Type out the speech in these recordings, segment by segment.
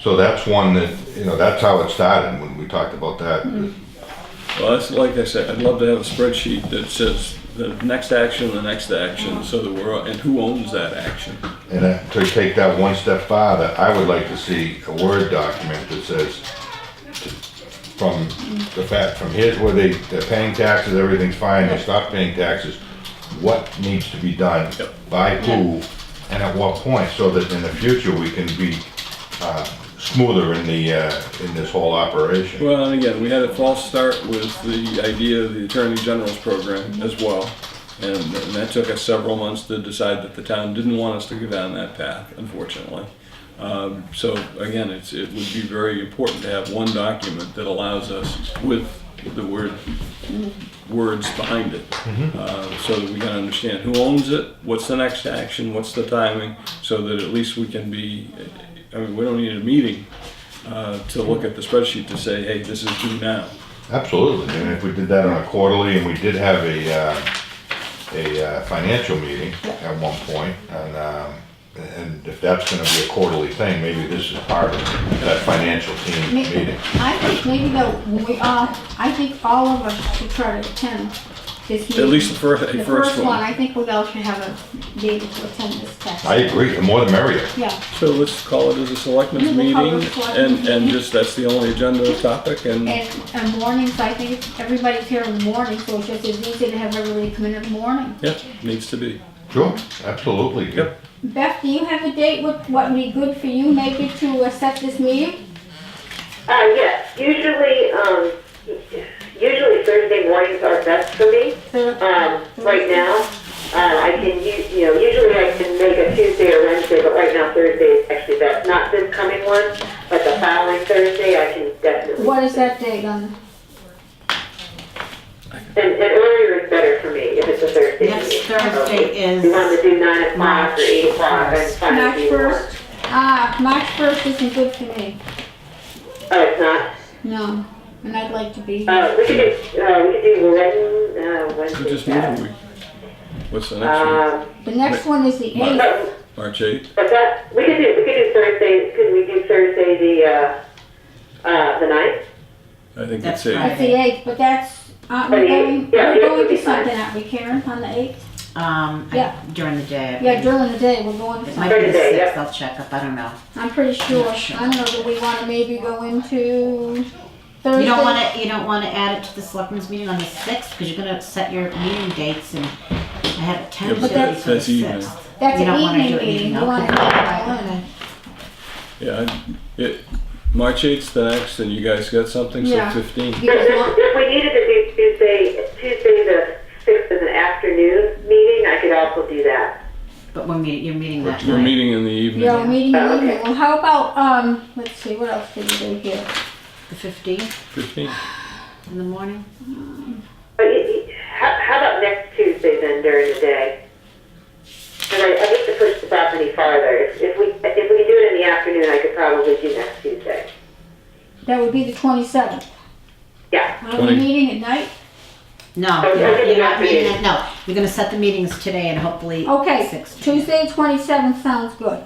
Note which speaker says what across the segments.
Speaker 1: So that's one that, you know, that's how it started when we talked about that.
Speaker 2: Mm-hmm. Well, that's like I said, I'd love to have a spreadsheet that says the next action, the next action, so that we're, and who owns that action?
Speaker 1: And uh, to take that one step farther, I would like to see a Word document that says from the fact, from here's where they, they're paying taxes, everything's fine, they stop paying taxes. What needs to be done,
Speaker 2: Yep.
Speaker 1: by who, and at what point, so that in the future we can be, uh, smoother in the, uh, in this whole operation.
Speaker 2: Well, and again, we had a false start with the idea of the Attorney General's program as well. And, and that took us several months to decide that the town didn't want us to go down that path, unfortunately. Um, so again, it's, it would be very important to have one document that allows us with the word, words behind it. Uh, so that we can understand who owns it, what's the next action, what's the timing, so that at least we can be, I mean, we don't need a meeting, uh, to look at the spreadsheet to say, hey, this is due now.
Speaker 1: Absolutely, and if we did that on a quarterly, and we did have a, uh, a uh, financial meeting at one point, and, um, and if that's gonna be a quarterly thing, maybe this is part of that financial team meeting.
Speaker 3: I think maybe though, when we all, I think all of us should try to attend this meeting.
Speaker 2: At least the first,
Speaker 3: Mm-hmm. The
Speaker 2: the first one.
Speaker 3: I think we all should have a, be able to attend this test.
Speaker 1: I agree, the more the merrier.
Speaker 3: Yeah,
Speaker 2: So let's call it as a selectmen's
Speaker 3: Yeah, we'll
Speaker 2: meeting,
Speaker 3: call it a selectmen's
Speaker 2: and, and
Speaker 3: meeting.
Speaker 2: just, that's the only agenda topic, and,
Speaker 3: and, and mornings, I think it's- everybody's here in the morning, so it's just as easy to have everybody come in in the morning.
Speaker 2: yeah, needs to be.
Speaker 1: Sure, absolutely.
Speaker 2: Yep.
Speaker 3: Beth, do you have a date, what, what would be good for you maybe to uh, set this meeting?
Speaker 4: Uh, yes, usually, um, usually Thursday mornings are best for me. Um, right now, uh, I can, u- you know, usually I can make a Tuesday or Wednesday, but right now Thursday is actually best. Not this coming one, but the following Thursday, I can definitely.
Speaker 3: What is that date on?
Speaker 4: And, and earlier is better for me if it's a Thursday.
Speaker 5: Next
Speaker 4: meeting.
Speaker 5: Thursday is
Speaker 4: You want to do nine o'clock
Speaker 5: March
Speaker 4: or eight o'clock, that's fine
Speaker 3: March
Speaker 4: if you want.
Speaker 3: first? Ah, March first isn't good for me,
Speaker 4: Oh, it's not?
Speaker 3: no, and I'd like to be here.
Speaker 4: Uh, we could do, uh, we could do Wednesday, uh,
Speaker 2: So
Speaker 4: Wednesday.
Speaker 2: just move a week. What's the next
Speaker 5: Uh,
Speaker 2: one?
Speaker 4: Um,
Speaker 3: The next one is the
Speaker 2: March.
Speaker 3: eighth.
Speaker 4: but
Speaker 2: March eighth?
Speaker 4: But that, we could do, we could do Thursday, could we do Thursday the, uh, uh, the ninth?
Speaker 2: I think
Speaker 5: That's
Speaker 2: it's eight.
Speaker 5: right.
Speaker 3: That's the eighth, but that's, uh,
Speaker 4: Oh,
Speaker 3: we're
Speaker 4: yeah,
Speaker 3: going,
Speaker 4: yeah,
Speaker 3: we're
Speaker 4: yeah,
Speaker 3: going to
Speaker 4: it's fine.
Speaker 3: something, aren't we, Karen, on the eighth?
Speaker 5: um, I-
Speaker 3: Yeah.
Speaker 5: during the day. I
Speaker 3: Yeah,
Speaker 5: believe.
Speaker 3: during the day, we're going to
Speaker 5: It
Speaker 3: something.
Speaker 5: might be
Speaker 4: During
Speaker 5: the
Speaker 4: the day,
Speaker 5: sixth, I'll check up, I don't know.
Speaker 3: I'm pretty sure, I
Speaker 5: sure.
Speaker 3: don't know, do we wanna maybe go into Thursday?
Speaker 5: You don't wanna, you don't wanna add it to the selectmen's meeting on the sixth, because you're gonna set your meeting dates and I have it
Speaker 2: Yeah, but
Speaker 5: tentatively
Speaker 2: that's-
Speaker 5: for the
Speaker 2: that's evening.
Speaker 5: sixth.
Speaker 3: That's
Speaker 5: you
Speaker 3: an
Speaker 5: don't wanna do
Speaker 3: evening
Speaker 5: it
Speaker 3: meeting,
Speaker 5: evening,
Speaker 3: we wanna
Speaker 5: okay.
Speaker 3: make it
Speaker 2: Yeah, I- it, March eight's the next, and you guys got something, so
Speaker 3: Yeah.
Speaker 2: fifteen.
Speaker 3: by one. You
Speaker 4: If,
Speaker 3: guys want-
Speaker 4: if we needed to do Tuesday, Tuesday the sixth is an afternoon meeting, I could also do that.
Speaker 5: But we're meeting, you're meeting that
Speaker 2: We're
Speaker 5: night.
Speaker 2: meeting in the evening.
Speaker 3: Yeah, meeting,
Speaker 4: Oh, okay.
Speaker 3: meeting, well, how about, um, let's see, what else can we do here?
Speaker 5: The fifteenth
Speaker 2: Fifteen.
Speaker 5: in the morning?
Speaker 4: But you, you, how, how about next Tuesday then during the day? And I, I hate to push this off any farther, if, if we, if we do it in the afternoon, I could probably do next Tuesday.
Speaker 3: That would be the twenty-seventh.
Speaker 4: Yeah,
Speaker 3: Are we
Speaker 2: Twenty-
Speaker 3: meeting at night?
Speaker 5: No,
Speaker 4: Okay,
Speaker 5: you're
Speaker 4: okay,
Speaker 5: you're
Speaker 4: not
Speaker 5: not meeting,
Speaker 4: meeting.
Speaker 5: it- no, you're gonna set the meetings today and hopefully.
Speaker 3: Okay,
Speaker 5: six-
Speaker 3: Tuesday, twenty-seventh sounds good.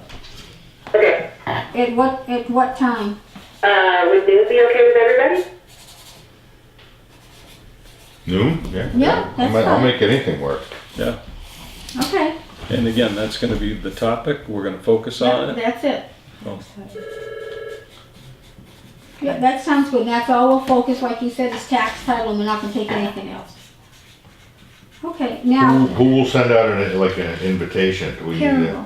Speaker 4: okay,
Speaker 3: At what, at what time?
Speaker 4: uh, would noon be okay with everybody?
Speaker 1: Noon? Yeah.
Speaker 3: Yeah,
Speaker 1: I'll
Speaker 3: that's
Speaker 1: ma- I'll
Speaker 3: fine,
Speaker 1: make anything work.
Speaker 2: Yeah,
Speaker 3: okay,
Speaker 2: and again, that's gonna be the topic, we're gonna focus on
Speaker 3: that-
Speaker 2: it.
Speaker 3: that's it.
Speaker 2: Oh.
Speaker 3: Yeah, that sounds good. That's all we'll focus, like you said, is tax title, and we're not gonna take anything else. Okay,
Speaker 1: Who,
Speaker 3: now,
Speaker 1: who will send out an, like an invitation? Do we need
Speaker 3: Karen.
Speaker 1: to?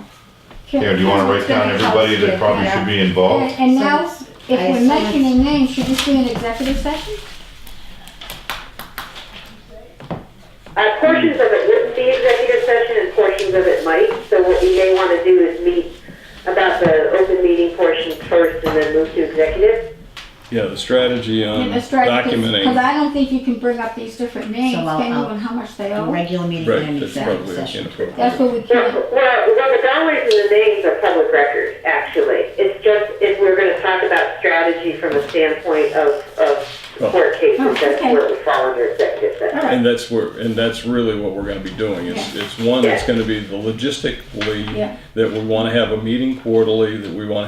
Speaker 1: Karen, do you wanna write down everybody that probably should be
Speaker 3: And
Speaker 1: involved?
Speaker 3: and now,
Speaker 5: So,
Speaker 3: if
Speaker 5: I
Speaker 3: we're
Speaker 5: assume
Speaker 3: mentioning names, should this be an executive session?
Speaker 4: Uh, portions of it wouldn't be executive session and portions of it might, so what you may want to do is meet about the open meeting portion first and then move to executive.
Speaker 2: Yeah, the strategy on
Speaker 3: Yeah, that's right, Because
Speaker 2: Um, documenting.
Speaker 3: I don't think you can bring up these different names,
Speaker 5: I'll-
Speaker 3: can you,
Speaker 5: I'll-
Speaker 3: and how much they
Speaker 5: A
Speaker 3: owe?
Speaker 5: regular meeting
Speaker 2: Right,
Speaker 5: and
Speaker 2: that's
Speaker 5: executive
Speaker 2: probably
Speaker 5: session.
Speaker 2: inappropriate.
Speaker 3: That's what we
Speaker 4: Well,
Speaker 3: can,
Speaker 4: well, well, the dollars and the names are public record, actually. It's just if we're going to talk about strategy from a standpoint of,
Speaker 2: Oh.
Speaker 4: of court cases, that's
Speaker 3: okay.
Speaker 4: where we fall under executive session.
Speaker 3: all right,
Speaker 2: And that's where, and that's really what we're gonna be doing, it's, it's one, that's gonna be the logistically,
Speaker 3: Yeah.
Speaker 2: that we wanna have a meeting quarterly, that we wanna